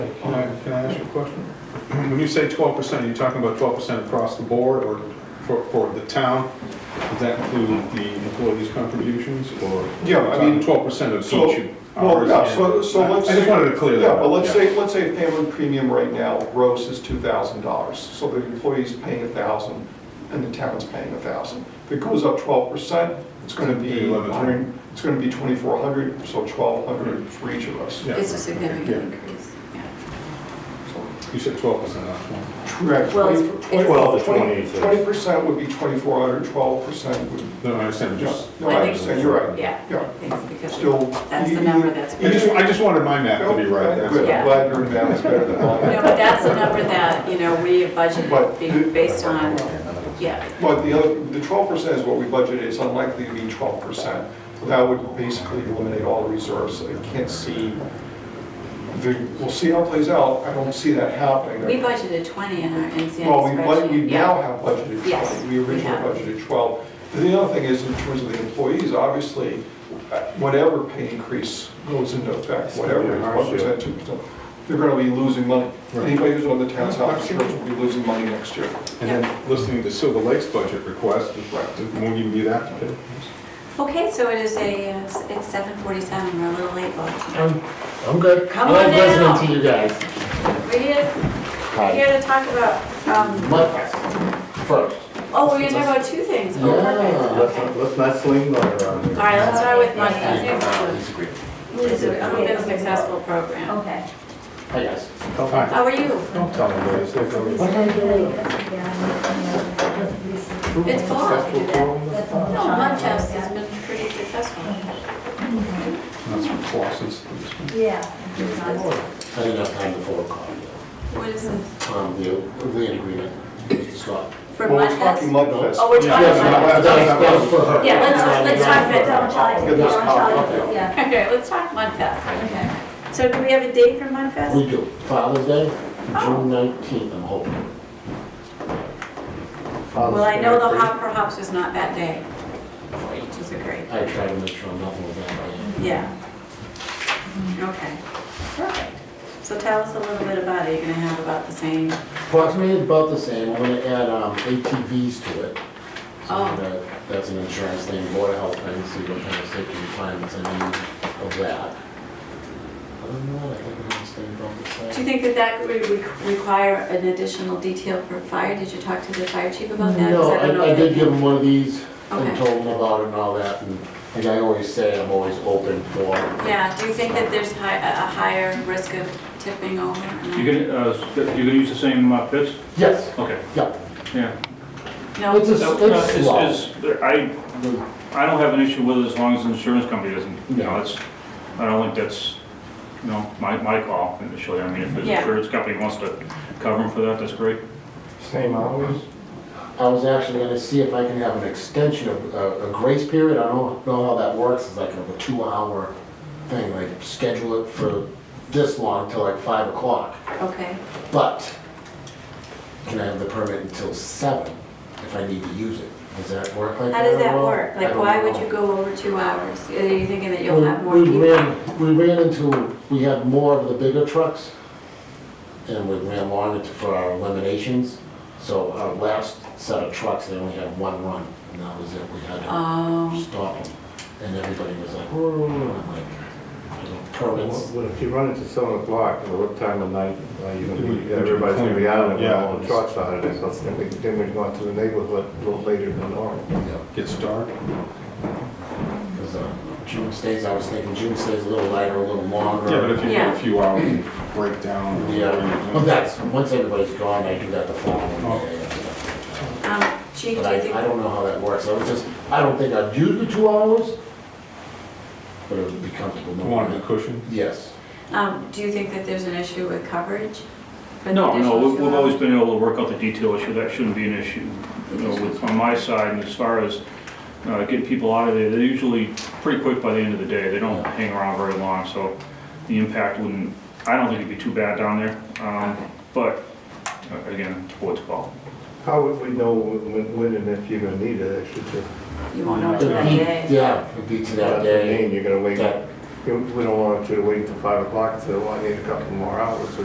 question? When you say twelve percent, are you talking about twelve percent across the board or for, for the town? Does that include the employees' contributions or? Yeah, I mean- Twelve percent of So- each Well, hours? yeah, so, so I let's. just wanted to clear that Yeah, up. but let's say, let's say a family premium right now, gross is two thousand dollars, so the employee's paying a thousand, and the town's paying a thousand. If it goes up twelve percent, it's gonna be, Eleven hundred. Hmm. it's gonna be twenty-four hundred, so twelve hundred for each of us. Yeah. It's a Yeah. significant increase, yeah. So, You said twelve percent, not twenty. Correct. Well, it's- it's- Well, the 20, so- Twenty percent would be twenty-four hundred, twelve percent would, No, I understand, just, no, I understand, you're right. Yeah, Yeah. it's because Still. that's the number that's. I just, I just wanted my math to be right, that's Good, all. Yeah. I'm glad your math is better than mine. No, but that's the number that, you know, we have But- budgeted be- based on, yeah, But the other, the twelve percent is what we budgeted, it's unlikely to be twelve percent. That would basically eliminate all reserves, I can't see, the- we'll see how it plays out, I don't see that happening. we budgeted 20 in our NCN Well, we bud- we spreadsheet, now yeah. have budgeted Yes, twelve, we we originally have. budgeted twelve. And The other thing is, in terms of the employees, obviously, uh, whatever pay increase goes into effect, whatever, gonna be hard one to- percent, two percent, they're gonna be losing money. Right. Anybody who's on the town's health insurance will be losing money next year. And then listening to Silver Lake's budget request, it won't even be that. Okay, so it is a, uh, s- it's 7:47, we're a little late, Oh. but I'm, I'm good. Come I on like down. listening to you guys. we just, we're here to talk about, um, Mud Fest first. oh, we're gonna talk about two things. Oh, Yeah. perfect. Let's Okay. not, let's not sling that around All here. right, let's start with Mud Fest. Disagree. It's a- it's been a successful program. Okay. I guess. Hi. How are you? Don't tell them, it's like a It's fall, I can do that. That's No, all. Mudfest has been pretty successful. That's from Flossin's. Yeah. it's not- I didn't have time before call. What is this? Um, the land agreement with Scott. For Well, we're talking Mudfest? mud fest. Oh, we're talking about, That was- that was for her. yeah, let's, uh, let's talk Don't about, try, Get don't this try, copy. yeah. okay, let's talk Mudfest. Okay. So do we have a date for We Mudfest? do. Father's Day, Oh. June nineteenth, I'm hoping. uh, Father's Well, I know the Day. Hop for Hops is not that day, which is a great, I try to make sure nothing was that way. yeah. Okay, perfect. So tell us a little bit about it, you're gonna have about the same, Approximately about the same, I'm gonna add um, ATVs to it. Oh. So that, that's an insurance thing, board of health thing, see what kind of safety requirements I need of that. Other than that, I think I'm gonna stay about the same. do you think that that would re- require an additional detail for fire? Did you talk to the fire chief about that? 'Cause No, don't know I, I if did they- give him one of these Okay. and told him about it and all that, and, and I always say I'm always open for, Yeah, do you think that there's hi- a a higher risk of tipping over? You're gonna, uh, s- you're gonna use the same uh, pits? yes, Okay, yeah. yeah. No, It's a, No, no, it's- it's slow. it's- I, I don't have an issue with it as long as the insurance company doesn't, you know, it's, I don't think that's, you know, my, my call initially. I mean, if the Yeah. insurance company wants to cover them for that, that's great. Same hours? I was actually gonna see if I can have an extension of, uh, a grace period, I don't know how that works, it's like a two-hour thing, like schedule it for this long till like five o'clock, okay. but can I have the permit until seven if I need to use it? Does that work like How that? does at that all? work? I Like, don't why would know. you go over two hours? Are you thinking that you'll We have more we people? ran, we ran into, we had more of the bigger trucks, and we ran long into for our eliminations. So our last set of trucks, they only had one run, and that was it, we had to Um, Oh, stop them. And everybody was like, "Whoa," and I'm like, I don't- permits. Well, if you run into seven o'clock, or what time of night, uh, you It would- gonna be, everybody's gonna be out and Yeah. all the trucks out of this, then we, then we'd go into the neighborhood a little later than normal. Gets dark. Because uh, June stays, I was thinking June stays a little lighter, a little longer. Yeah, but if you get Yeah. a few hours and break down. or Yeah, Oh, whatever, but that's, once everybody's gone, I do that the Oh. following day. um, chief, do But you I, I think, don't know how that works, I was just, I don't think I'd use the two hours, but it would be comfortable. You knowing want a that. cushion? Yes, um, do you think that there's an issue with coverage? for the No, no, additional we- two we've always hours? been able to work out the detail issue, that shouldn't be an issue, you know, with, on my side, and as far as uh, getting people out of there, they're usually pretty quick by the end of the day, they don't Yeah. hang around very long, so the impact wouldn't, I don't think it'd be too bad down there, um, Okay. but, uh, again, it's board's call. How would we know when, when and if you're gonna need it, actually, to, You won't know It'd until that be- day. yeah, it'd be to that that's the day, name, you're gonna wait, that you- we don't want you to wait until five o'clock, so I need a couple more hours, so